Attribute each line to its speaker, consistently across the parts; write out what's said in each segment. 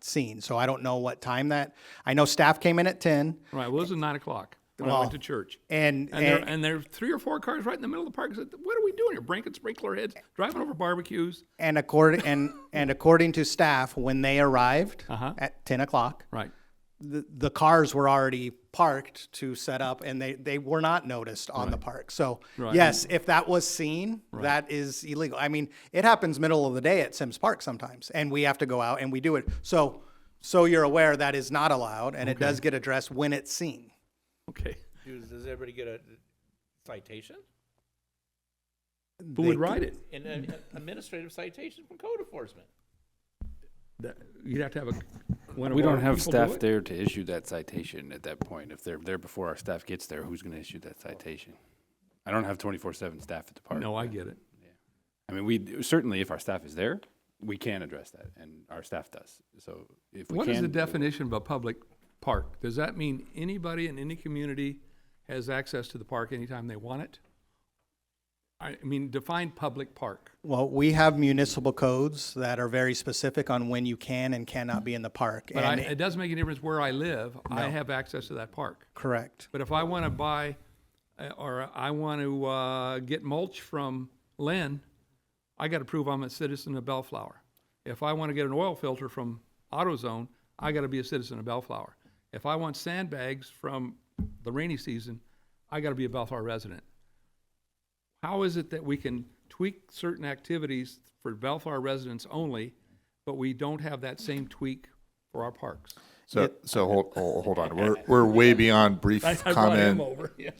Speaker 1: seen. So I don't know what time that, I know staff came in at ten
Speaker 2: Right, well, it was at nine o'clock when I
Speaker 1: Well,
Speaker 2: went to church.
Speaker 1: and,
Speaker 2: And there,
Speaker 1: and,
Speaker 2: and there are three or four cars right in the middle of the park. I said, what are we doing here? Breaking sprinkler heads, driving over barbecues.
Speaker 1: and according, and, and according to staff, when they arrived
Speaker 2: Uh-huh.
Speaker 1: at ten o'clock,
Speaker 2: Right.
Speaker 1: the, the cars were already parked to set up and they, they were not noticed on the park. So yes, if that was seen, that is illegal. I mean, it happens middle of the day at Sims Park sometimes and we have to go out and we do it. So, so you're aware that is not allowed and it does get addressed when it's seen.
Speaker 2: Okay.
Speaker 3: Does, does everybody get a citation?
Speaker 2: Who
Speaker 1: They-
Speaker 2: would ride it?
Speaker 3: An an administrative citation from code enforcement?
Speaker 2: That- You'd have to have a. one of
Speaker 4: We
Speaker 2: our
Speaker 4: don't have
Speaker 2: people do
Speaker 4: staff
Speaker 2: it?
Speaker 4: there to issue that citation at that point. If they're there before our staff gets there, who's gonna issue that citation? I don't have twenty-four seven staff at the park.
Speaker 2: No, I get it.
Speaker 4: I mean, we, certainly if our staff is there, we can address that, and our staff does. So if we can.
Speaker 2: What is the
Speaker 4: do it.
Speaker 2: definition of a public park? Does that mean anybody in any community has access to the park anytime they want it? I mean, define public park.
Speaker 1: Well, we have municipal codes that are very specific on when you can and cannot be in the park.
Speaker 2: But I,
Speaker 1: and
Speaker 2: it doesn't make any difference where I live. I have access to that park.
Speaker 1: correct.
Speaker 2: But if I want to buy, uh, or I want to uh, get mulch from Lynn, I got to prove I'm a citizen of Bellflower. If I want to get an oil filter from AutoZone, I got to be a citizen of Bellflower. If I want sandbags from the rainy season, I got to be a Bellflower resident. How is it that we can tweak certain activities for Bellflower residents only, but we don't have that same tweak for our parks?
Speaker 5: So, so hold, hold, hold on. We're, we're way beyond brief comment.
Speaker 2: over. Yeah.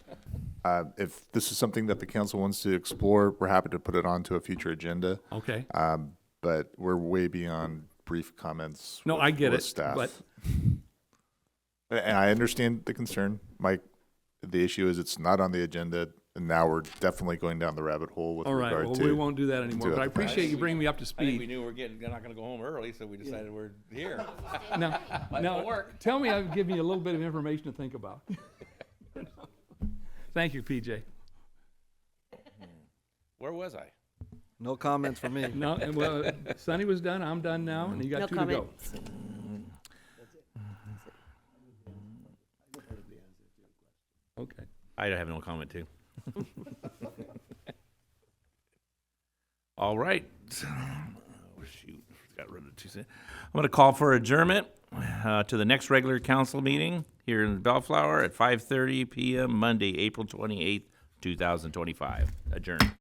Speaker 5: Uh, if this is something that the council wants to explore, we're happy to put it onto a future agenda.
Speaker 2: Okay.
Speaker 5: Um, but we're way beyond brief comments.
Speaker 2: No,
Speaker 5: with-
Speaker 2: I get
Speaker 5: with
Speaker 2: it,
Speaker 5: Staff.
Speaker 2: but-
Speaker 5: And I understand the concern, Mike. The issue is it's not on the agenda, and now we're definitely going down the rabbit hole with
Speaker 2: All right,
Speaker 5: regard
Speaker 2: well,
Speaker 5: to.
Speaker 2: we won't do that anymore,
Speaker 5: to
Speaker 2: but I
Speaker 5: other things.
Speaker 2: appreciate you bringing me up to
Speaker 3: I think we
Speaker 2: speed.
Speaker 3: knew we are getting, they're not gonna go home early, so we decided we're here.
Speaker 2: Now,
Speaker 3: it'll
Speaker 2: now,
Speaker 3: work.
Speaker 2: tell me I've given you a little bit of information to think about. Thank you, PJ.
Speaker 3: Where was I?
Speaker 6: No comments from me.
Speaker 2: No, and well, Sonny was done, I'm done now, and you
Speaker 7: No
Speaker 2: got two to go.
Speaker 7: comments.
Speaker 2: Okay.
Speaker 3: I have no comment too. All right. Oh, shoot, got rid of two. se- I'm going to call for adjournment uh, to the next regular council meeting here in Bellflower at 5:30 p.m. Monday, April 28th, 2025. Adjourned.